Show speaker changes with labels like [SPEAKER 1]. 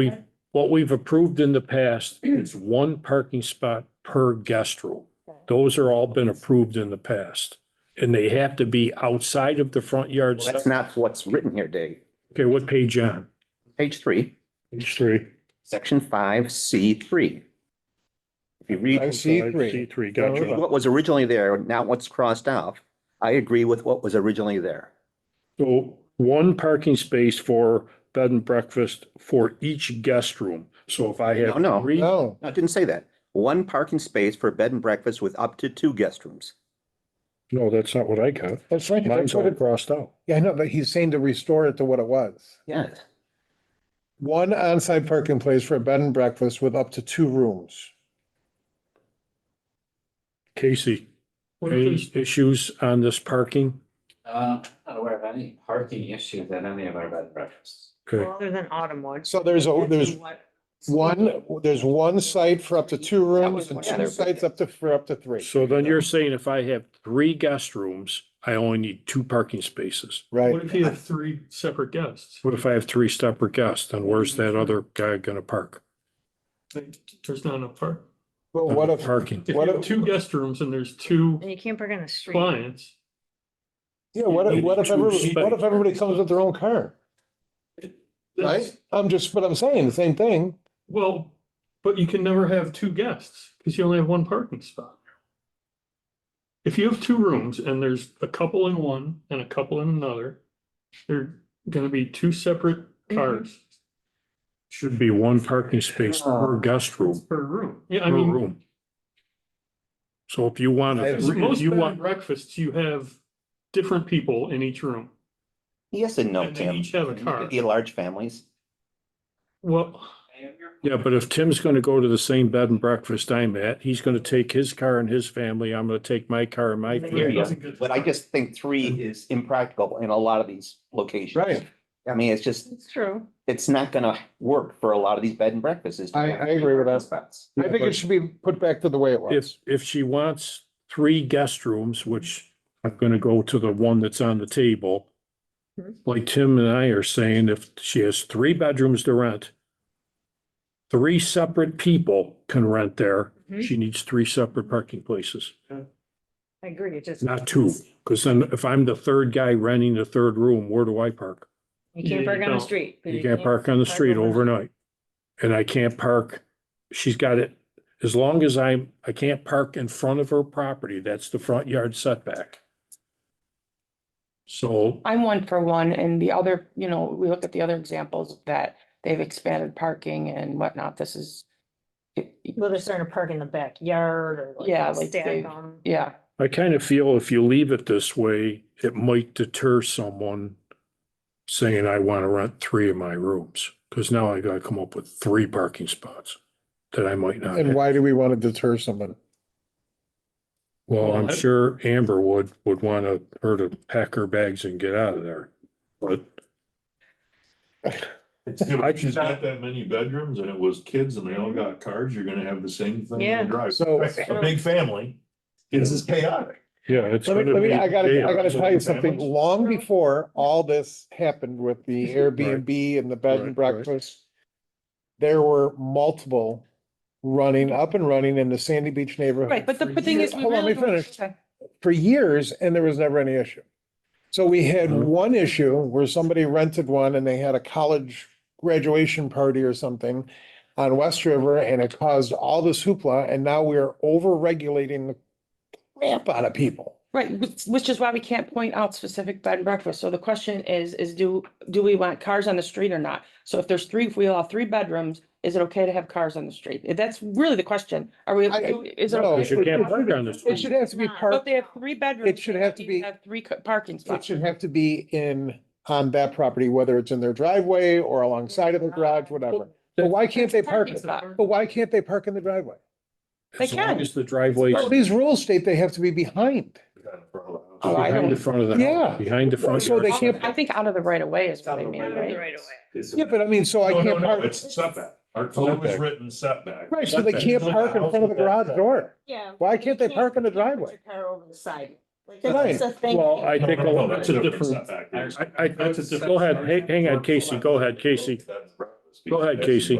[SPEAKER 1] We, what we've approved in the past is one parking spot per guest room. Those are all been approved in the past. And they have to be outside of the front yard.
[SPEAKER 2] That's not what's written here, Dave.
[SPEAKER 1] Okay, what page on?
[SPEAKER 2] Page three,
[SPEAKER 1] Page three.
[SPEAKER 2] section five, C three. If you
[SPEAKER 3] I
[SPEAKER 2] read
[SPEAKER 3] see
[SPEAKER 1] C
[SPEAKER 3] three.
[SPEAKER 1] three, gotcha.
[SPEAKER 2] what was originally there, not what's crossed off, I agree with what was originally there.
[SPEAKER 1] So one parking space for bed and breakfast for each guest room. So if I have.
[SPEAKER 2] No, no.
[SPEAKER 1] three-
[SPEAKER 3] No,
[SPEAKER 2] No, I didn't say that. One parking space for bed and breakfast with up to two guest rooms.
[SPEAKER 1] No, that's not what I got.
[SPEAKER 3] that's right.
[SPEAKER 1] Mine's
[SPEAKER 3] That's
[SPEAKER 1] all
[SPEAKER 3] what it-
[SPEAKER 1] crossed out.
[SPEAKER 3] Yeah, I know, but he's saying to restore it to what it was.
[SPEAKER 2] Yes.
[SPEAKER 3] One on-site parking place for a bed and breakfast with up to two rooms.
[SPEAKER 1] Casey, any issues on this parking?
[SPEAKER 4] Uh, not aware of any parking issues at any of our bed and breakfasts.
[SPEAKER 1] Okay,
[SPEAKER 5] Other than Autumnwood.
[SPEAKER 3] So there's, a there's one, there's one site for up to two rooms and two sites up to, for up to three,
[SPEAKER 1] so then you're saying if I have three guest rooms, I only need two parking spaces.
[SPEAKER 3] right?
[SPEAKER 6] What if you have three separate guests?
[SPEAKER 1] What if I have three separate guests? Then where's that other guy gonna park?
[SPEAKER 6] Like, There's not enough park.
[SPEAKER 3] But what if,
[SPEAKER 1] Parking.
[SPEAKER 6] If you
[SPEAKER 3] What
[SPEAKER 6] have
[SPEAKER 3] if-
[SPEAKER 6] two guest rooms and there's two
[SPEAKER 5] And you can't park on the street.
[SPEAKER 6] clients,
[SPEAKER 3] yeah, what if, what if
[SPEAKER 1] Two
[SPEAKER 3] everybody, what if everybody comes with their own car, right?
[SPEAKER 6] that's,
[SPEAKER 3] I'm just, but I'm saying the same thing.
[SPEAKER 6] well, but you can never have two guests because you only have one parking spot. If you have two rooms and there's a couple in one and a couple in another, they're gonna be two separate cars
[SPEAKER 1] Should be one parking space per guest room,
[SPEAKER 6] per room. Yeah, I
[SPEAKER 1] per
[SPEAKER 6] mean,
[SPEAKER 1] room. So if you want,
[SPEAKER 3] I-
[SPEAKER 1] to, if
[SPEAKER 6] most
[SPEAKER 1] you
[SPEAKER 6] bed and
[SPEAKER 1] want,
[SPEAKER 6] breakfasts, you have different people in each room.
[SPEAKER 2] Yes and no,
[SPEAKER 6] And they
[SPEAKER 2] Tim.
[SPEAKER 6] each have a car.
[SPEAKER 2] You get large families.
[SPEAKER 6] Well,
[SPEAKER 1] yeah, but if Tim's gonna go to the same bed and breakfast I'm at, he's gonna take his car and his family, I'm gonna take my car and my.
[SPEAKER 5] Yeah.
[SPEAKER 1] family.
[SPEAKER 2] Yeah. But I just think three is impractical in a lot of these locations.
[SPEAKER 3] Mm-hmm. Right.
[SPEAKER 2] I mean, it's just,
[SPEAKER 5] It's true.
[SPEAKER 2] it's not gonna work for a lot of these bed and breakfasts. is to
[SPEAKER 3] I-
[SPEAKER 2] have
[SPEAKER 3] I agree with that.
[SPEAKER 2] spots.
[SPEAKER 3] I think it should be put back to the way it
[SPEAKER 1] If,
[SPEAKER 3] was.
[SPEAKER 1] if she wants three guest rooms, which I'm gonna go to the one that's on the table. Like Tim and I are saying, if she has three bedrooms to rent. Three separate people can rent there.
[SPEAKER 5] Mhm.
[SPEAKER 1] She needs three separate parking places,
[SPEAKER 5] I agree, it just.
[SPEAKER 1] not two. Cause then if I'm the third guy renting the third room, where do I park?
[SPEAKER 5] You can't
[SPEAKER 6] You
[SPEAKER 5] park on the
[SPEAKER 6] don't.
[SPEAKER 5] street. 'cause
[SPEAKER 1] You can't park on the
[SPEAKER 5] park
[SPEAKER 1] street
[SPEAKER 5] overnight.
[SPEAKER 1] overnight. And I can't park, she's got it, as long as I'm, I can't park in front of her property, that's the front yard setback. So,
[SPEAKER 7] I'm one for one, and the other, you know, we look at the other examples that they've expanded parking and whatnot, this is. it-
[SPEAKER 5] Well, they're starting to park in the backyard or
[SPEAKER 7] Yeah,
[SPEAKER 5] like
[SPEAKER 7] like
[SPEAKER 5] stack
[SPEAKER 7] they-
[SPEAKER 5] them.
[SPEAKER 7] Yeah,
[SPEAKER 1] I kind of feel if you leave it this way, it might deter someone saying, I want to rent three of my rooms, because now I gotta come up with three parking spots that I might not.
[SPEAKER 3] And
[SPEAKER 1] have.
[SPEAKER 3] why do we want to deter someone?
[SPEAKER 1] Well, I'm
[SPEAKER 6] Well, I-
[SPEAKER 1] sure Amber would, would want to, her to pack her bags and get out of there, but. I
[SPEAKER 8] If
[SPEAKER 1] can-
[SPEAKER 8] she's not that many bedrooms and it was kids and they all got cars, you're gonna have the same thing
[SPEAKER 5] Yeah.
[SPEAKER 8] in the drive.
[SPEAKER 3] So-
[SPEAKER 8] A big family, kids is chaotic.
[SPEAKER 1] Yeah, it's.
[SPEAKER 3] Let me,
[SPEAKER 1] gonna
[SPEAKER 3] let me,
[SPEAKER 1] be
[SPEAKER 3] I gotta, I
[SPEAKER 1] chaos.
[SPEAKER 3] gotta tell you
[SPEAKER 8] Families?
[SPEAKER 3] something, long before all this happened with the Airbnb and the bed and
[SPEAKER 1] Right, right.
[SPEAKER 3] breakfast. There were multiple running, up and running in the Sandy Beach neighborhood.
[SPEAKER 7] right, but the,
[SPEAKER 3] for
[SPEAKER 7] but thing
[SPEAKER 3] years-
[SPEAKER 7] is, we
[SPEAKER 3] Hold on,
[SPEAKER 7] really.
[SPEAKER 3] let me finish.
[SPEAKER 7] Okay.
[SPEAKER 3] For years, and there was never any issue. So we had
[SPEAKER 1] Mhm.
[SPEAKER 3] one issue where somebody rented one and they had a college graduation party or something. On West River and it caused all this hoopla and now we're over regulating the crap out of people.
[SPEAKER 7] Right, which- which is why we can't point out specific bed and breakfast, so the question is, is do, do we want cars on the street or not? So if there's three, if we allow three bedrooms, is it okay to have cars on the street? That's really the question, are we,
[SPEAKER 3] I-
[SPEAKER 7] is it?
[SPEAKER 3] no,
[SPEAKER 7] okay
[SPEAKER 1] Because you
[SPEAKER 7] for-
[SPEAKER 1] can't park on the
[SPEAKER 3] It
[SPEAKER 1] street.
[SPEAKER 3] should have to be
[SPEAKER 5] But
[SPEAKER 7] But
[SPEAKER 3] parked,
[SPEAKER 7] they have three bedrooms.
[SPEAKER 3] It should have to be-
[SPEAKER 7] Have three ca- parking
[SPEAKER 3] it
[SPEAKER 7] spots.
[SPEAKER 3] should have to be in, on that property, whether it's in their driveway or alongside of their garage, whatever. But why can't they park,
[SPEAKER 7] Parking spot.
[SPEAKER 3] but why can't they park in the driveway?
[SPEAKER 7] They
[SPEAKER 1] As long
[SPEAKER 7] can.
[SPEAKER 1] As the driveway.
[SPEAKER 3] Well, These rules state they have to be behind.
[SPEAKER 7] Oh, I
[SPEAKER 1] Behind the
[SPEAKER 7] don't-
[SPEAKER 1] front of the. house,
[SPEAKER 3] Yeah.
[SPEAKER 1] Behind the front.
[SPEAKER 3] So they
[SPEAKER 1] yard.
[SPEAKER 3] can't-
[SPEAKER 7] I think out of the right of way is what I
[SPEAKER 8] Out
[SPEAKER 7] mean,
[SPEAKER 8] of the
[SPEAKER 7] right?
[SPEAKER 5] Right away.
[SPEAKER 3] Yeah, but I mean, so I
[SPEAKER 8] No, no,
[SPEAKER 3] can't
[SPEAKER 8] no,
[SPEAKER 3] park,
[SPEAKER 8] It's a setback. Our code is
[SPEAKER 1] Setback.
[SPEAKER 8] written setback.
[SPEAKER 3] right, so they can't park in front of the garage door.
[SPEAKER 5] Yeah.
[SPEAKER 3] Why can't they park in the driveway?
[SPEAKER 5] Car over the side. Like,
[SPEAKER 3] Right.
[SPEAKER 5] that's a thing.
[SPEAKER 1] Well, I
[SPEAKER 8] No,
[SPEAKER 1] think,
[SPEAKER 8] no,
[SPEAKER 1] a
[SPEAKER 8] no,
[SPEAKER 1] lot-
[SPEAKER 8] That's a different setback.
[SPEAKER 1] I, I, go ahead, hang, hang on, Casey, go ahead, Casey. Go ahead, Casey.